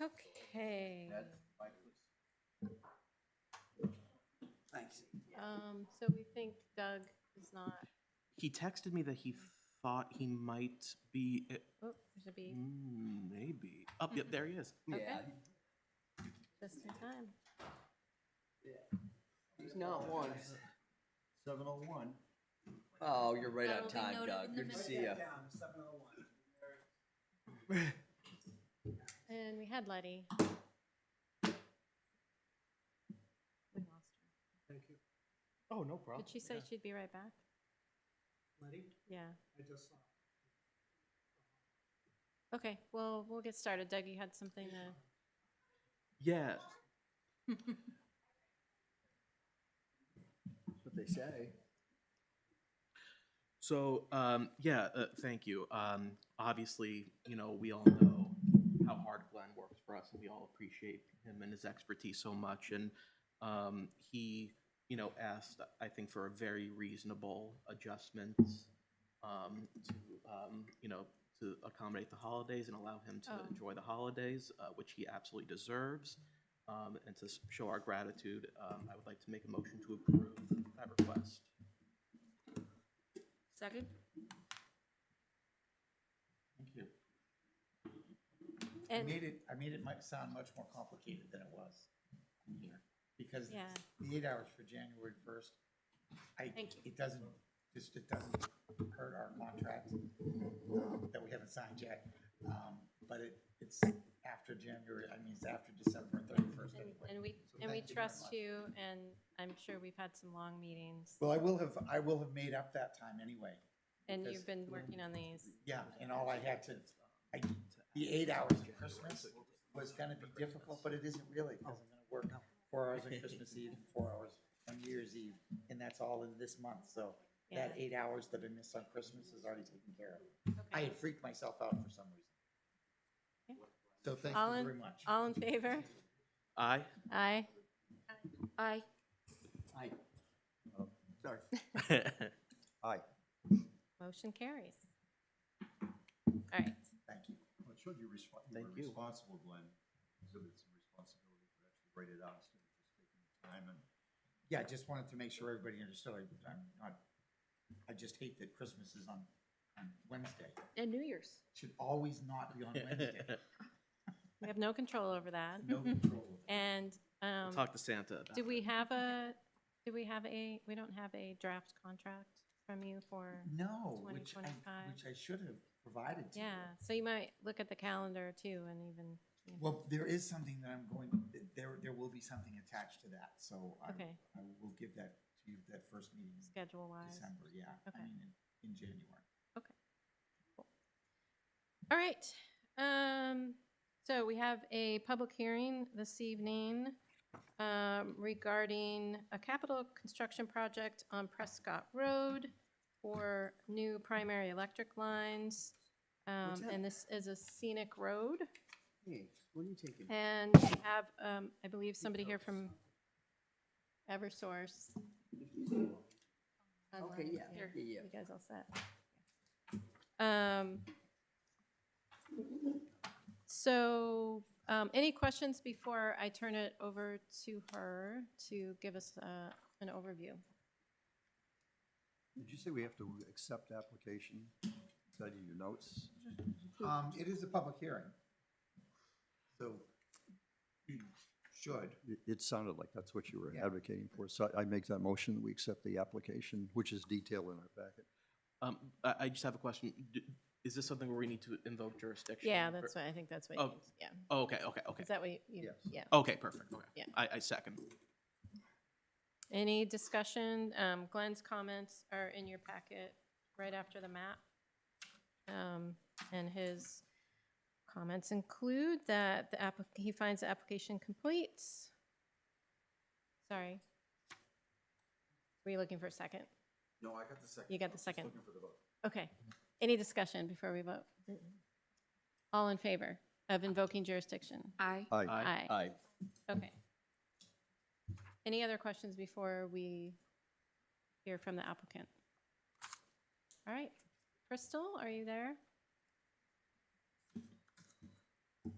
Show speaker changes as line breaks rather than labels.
Okay,
That's my place.
Thanks.
um, so we think Doug is not,
He texted me that he thought he might be, eh,
oh, there's a bee,
mm, maybe. Up, yep, there he is.
Okay.
Mm, Yeah,
just in time.
He's not one.
seven oh one.
Oh, you're right on
That'll be
time,
noted
Doug.
in the
Good to
minutes.
see you.
And we had Letty. We lost her.
Thank you.
Oh, no problem.
Did she say
yeah.
she'd be right back?
Letty,
Yeah,
I just saw.
okay, well, we'll get started. Doug, you had something to,
Yeah,
What they say.
so, um, yeah, uh, thank you. Um, obviously, you know, we all know how hard Glenn works for us, and we all appreciate him and his expertise so much. And, um, he, you know, asked, I think, for a very reasonable adjustment, um, to, um, you know, to accommodate the holidays and allow him to
Oh.
enjoy the holidays, uh, which he absolutely deserves. Um, and to s- show our gratitude, um, I would like to make a motion to approve that request.
second?
Thank you.
I
And,
made it, I made it might sound much more complicated than it was in here, because
yeah,
the eight hours for January first, I,
Thank you.
it doesn't, just, it doesn't hurt our contract um, that we haven't signed yet. Um, but it, it's after January, I mean, it's after December thirty-first
and-
anyway.
and we,
So
and we
thank you very
trust
much.
you, and I'm sure we've had some long meetings,
Well, I will have, I will have made up that time anyway.
and
because-
you've been working on these.
Yeah, and all I had to, I, the eight hours of Christmas was gonna be difficult, but it isn't really, because I'm gonna work four hours on Christmas Eve, four hours on New Year's Eve, and that's all in this month, so
Yeah.
that eight hours that I missed on Christmas is already taken care of. I
Okay.
had freaked myself out for some
Okay.
reason. So thank
All
you
in-
very much.
All in favor?
Aye.
Aye. Aye.
Aye. Oh, Sorry. Aye.
Motion carries. All right,
Thank you.
Well, it showed you respon- you
Thank
were
you.
responsible, Glenn, so there's some responsibility for actually write it out instead of just taking the time and
Yeah, I just wanted to make sure everybody understood, I- I'm not, I just hate that Christmas is on, on Wednesday.
and New Year's.
should always not be on Wednesday.
We have no control over that.
No control. over that.
And, um,
Talk to Santa about
do
it.
we have a, do we have a, we don't have a draft contract from you for,
No, which I,
2025.
which I should have provided to you.
yeah, so you might look at the calendar too and even, you know,
Well, there is something that I'm going, there, there will be something attached to that, so I,
okay,
I will give that to you, that first meeting in
schedule wise.
December, yeah,
Okay.
I mean, in, in January.
All right, um, so we have a public hearing this evening, um, regarding a capital construction project on Prescott Road for new primary electric lines. Um,
that?
and this is a scenic road,
Hey, what are you taking?
and we have, um, I believe somebody here from Eversource.
Okay, yeah,
Here,
yeah, yeah.
You guys all set? Um, so, um, any questions before I turn it over to her to give us, uh, an overview?
Did you say we have to accept application? Is that in your notes?
Um, it is a public hearing. So you should.
It, it sounded like that's what you were
Yeah.
advocating for, so I I make that motion, that we accept the application, which is detailed in our packet.
Um, I, I just have a question. D- Is this something where we need to invoke jurisdiction?
Yeah,
or-
that's what, I think that's what,
Oh.
you- yeah.
Oh, okay, okay, okay.
Is that what you- you,
Yes.
yeah.
Okay, perfect, okay.
Yeah.
I, I second.
Any discussion? Um, Glenn's comments are in your packet right after the map. Um, and his comments include that the app, he finds the application complete. Sorry. Were you looking for a second?
No, I got the second.
You got the
I'm just
second.
Looking for the vote.
Okay. Any discussion before we vote? All in favor of invoking jurisdiction?
Aye.
Aye.
Aye.
Aye.
Okay. Any other questions before we hear from the applicant? All right, Crystal, are you there?